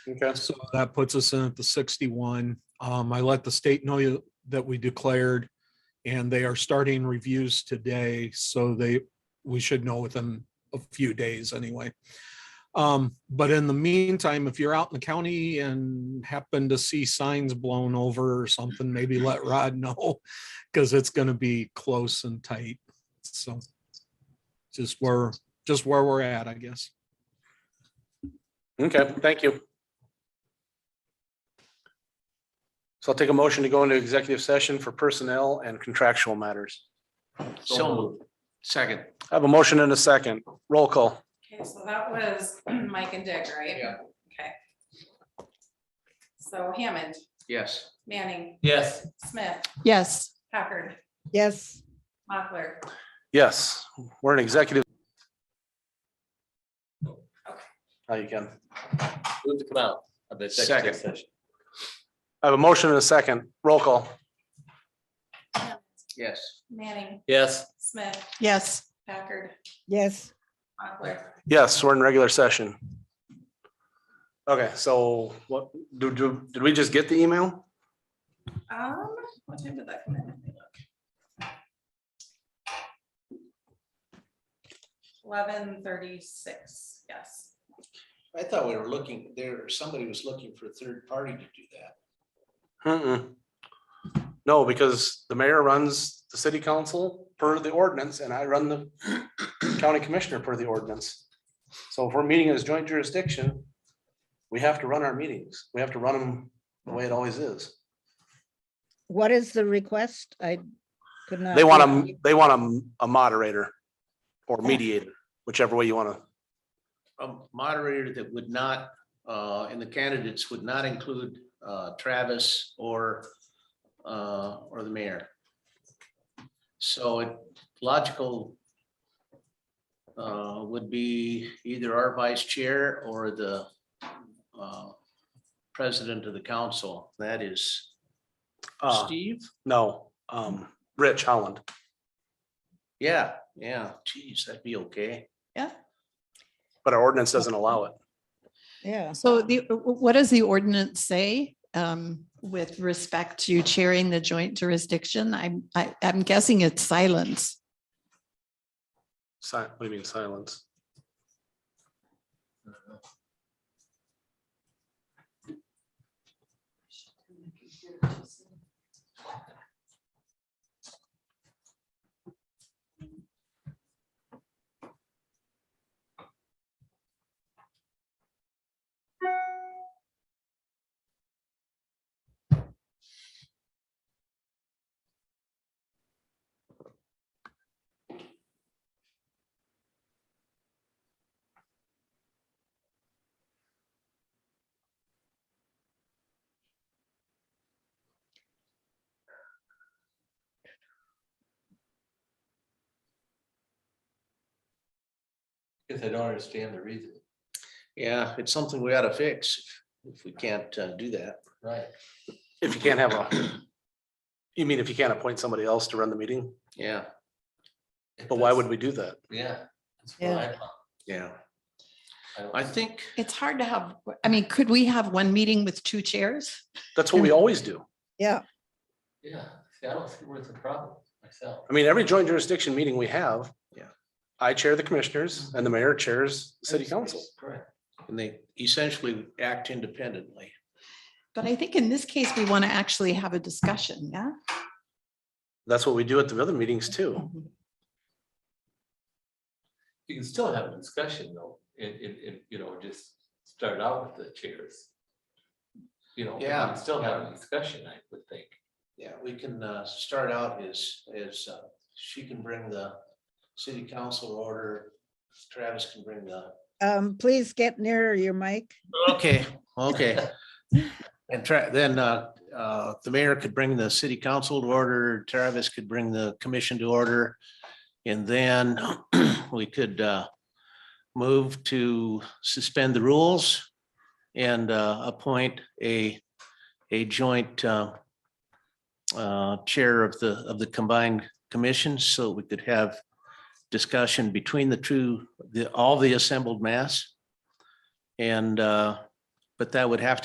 Okay, So that puts us in at the sixty-one. Um, I let the state know you- that we declared. And they are starting reviews today, so they, we should know within a few days anyway. Um, but in the meantime, if you're out in the county and happen to see signs blown over or something, maybe let Rod know. Cause it's gonna be close and tight, so. Just where, just where we're at, I guess. okay, thank you. So I'll take a motion to go into executive session for personnel and contractual matters. So moved. Second. I have a motion and a second. Roll call. Okay, so that was Mike and Dick, right? Yeah. Okay. So Hammond, Yes. Manning, Yes. Smith, Yes. Packard, Yes. Mochler. Yes, we're an executive. Now Oh, you can. Move to come out of the executive Second. session. I have a motion and a second. Roll call. Yes. Manning, Yes. Smith, Yes. Packard, Yes. Mochler. Yes, we're in regular session. Okay, so what, do, do, did we just get the email? Um, what time did that come in? Let me look. Eleven thirty-six, yes. I thought we were looking, there, somebody was looking for a third party to do that. Mm-mm. No, because the mayor runs the city council per the ordinance and I run the county commissioner per the ordinance. So if we're meeting as joint jurisdiction, we have to run our meetings. We have to run them the way it always is. What is the request? I could not. They want hear a, you. they want a, a moderator or mediator, whichever way you want to. A moderator that would not, uh, and the candidates would not include, uh, Travis or, uh, or the mayor. So it logical uh, would be either our vice chair or the, uh, president of the council. That is Uh, Steve? no, um, Rich Holland. Yeah, yeah, geez, that'd be okay. But our ordinance doesn't allow it. Yeah, So the, what does the ordinance say um, with respect to chairing the joint jurisdiction? I'm, I- I'm guessing it's silence. Si- what do you mean silence? Because I don't understand the reason. Yeah, it's something we ought to fix if- if we can't uh, do that. Right. If you can't have a, you mean if you can't appoint somebody else to run the meeting? Yeah, But why would we do that? Yeah. that's what I thought. yeah. I don't- I think, It's hard to have, I mean, could we have one meeting with two chairs? That's what we always do. yeah, Yeah, see, I don't see where's the problem myself. I mean, every joint jurisdiction meeting we have. Yeah. I chair the commissioners and the mayor chairs the city council. Correct. and they essentially act independently. But I think in this case, we want to actually have a discussion, yeah? That's what we do at the other meetings too. You can still have a discussion though, and, and, and, you know, just start out with the chairs. You know, we can Yeah. still have a discussion, I would think. Yeah, we can uh, start out as, as uh, she can bring the city council to order. Travis can bring the. um, please get nearer your mic. Okay, okay. And try, then uh, uh, the mayor could bring the city council to order, Travis could bring the commission to order. And then we could uh, move to suspend the rules and uh, appoint a, a joint uh, uh, chair of the, of the combined commission, so we could have discussion between the two, the, all the assembled mass. And uh, But that would have to.